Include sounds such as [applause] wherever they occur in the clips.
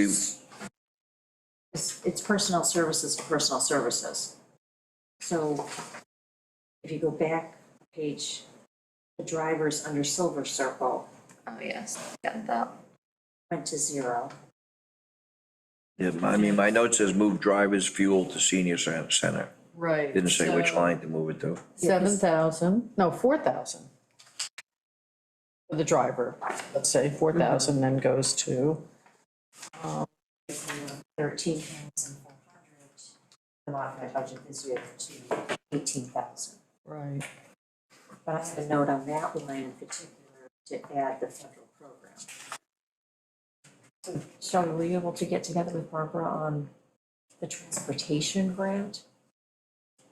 Please, It's, it's personal services to personal services. So if you go back page, the drivers under silver circle Oh, yes, got that. went to zero. yeah, my- I mean, my note says move drivers fuel to senior cen- center. Right. Didn't say which so line to move it to. Seven thousand, no, four thousand. For the driver, let's say four thousand then goes to, Thirteen thousand five hundred. The modified budget this year to eighteen thousand. right, But I have a note on that line in particular to add the federal program. So Sean, were you able to get together with Barbara on the transportation grant?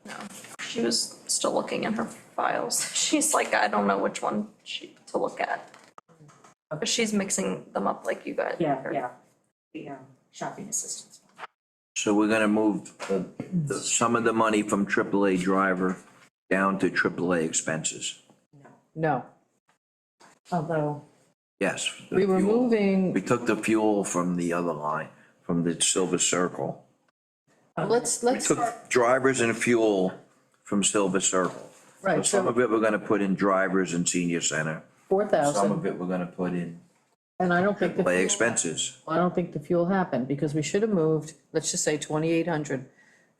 No, she was still looking in her files. [laughs] She's like, I don't know which one she, to look at. But she's mixing them up like you guys. Yeah, are. yeah, the um, shopping assistance. So we're gonna move uh, the, some of the money from AAA driver down to AAA expenses. no. Although, Yes. the We were fuel. moving, We took the fuel from the other line, from the silver circle. let's, We let's, took drivers and fuel from silver circle. So right, Some so of it we're gonna put in drivers and senior center. four Some of thousand, it we're gonna put in and I don't think the play fuel- expenses. I don't think the fuel happened, because we should have moved, let's just say twenty-eight hundred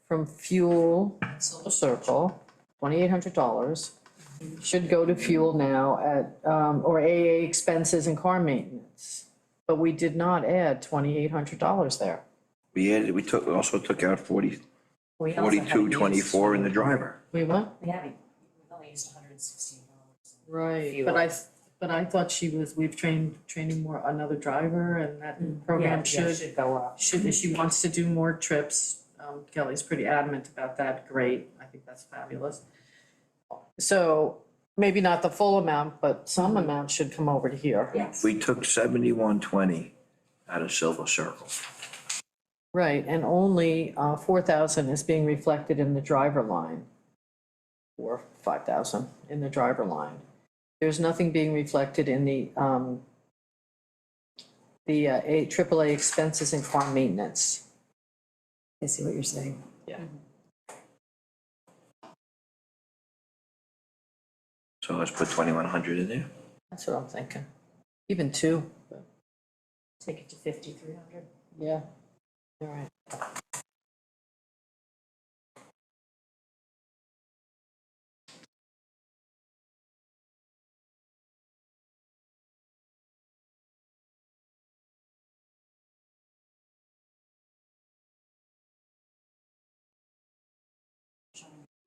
from fuel, Silver Circle, twenty-eight hundred dollars. Should go to fuel now at, um, or AA expenses and car maintenance. But we did not add twenty-eight hundred dollars there. We added, we took, we also took out forty, we also haven't forty-two, used- twenty-four in the driver. We what? We haven't, we've only used hundred and sixteen dollars. Right, but I, s- but I thought she was, we've trained, training more, another driver, and that program should Mm, should go up. should, if she wants to do more trips, um, Kelly's pretty adamant about that, great, I think that's fabulous. So, maybe not the full amount, but some amount should come over to here. Yes. We took seventy-one twenty out of silver circle. Right, and only, uh, four thousand is being reflected in the driver line. Or five thousand in the driver line. There's nothing being reflected in the, um, the, uh, A, AAA expenses and car maintenance. I see what you're saying. So let's put twenty-one hundred in there. That's what I'm thinking. Even two, but. Take it to fifty-three hundred. Yeah. All right.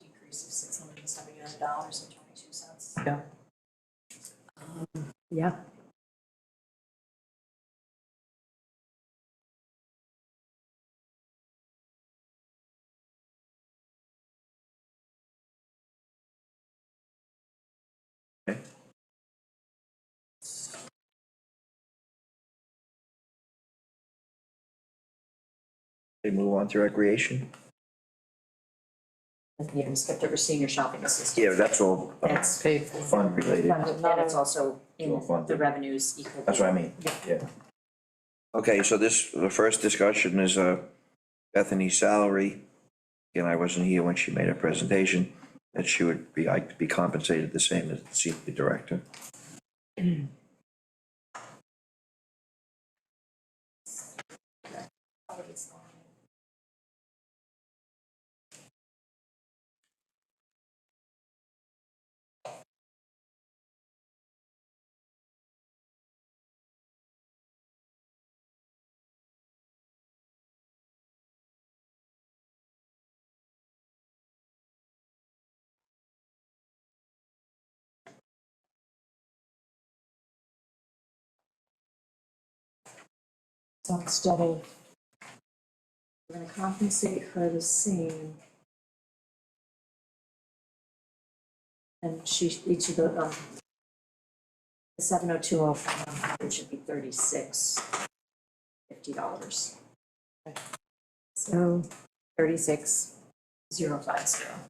Decrease of six hundred and seventy-nine dollars and twenty-two cents. Yeah. Yeah. They move on to recreation? You haven't skipped over senior shopping assistance. Yeah, that's all uh, That's Paid for. fund related. funded, and it's also in Well funded. the revenues equal. That's what I mean, Yeah. yeah. Okay, so this, the first discussion is uh, Bethany's salary. Again, I wasn't here when she made her presentation, that she would be, i be compensated the same as the senior director. So instead of, we're gonna compensate her the same. And she, each of the, um, the seven oh two oh five, it should be thirty-six, fifty dollars. So, thirty-six, zero five zero.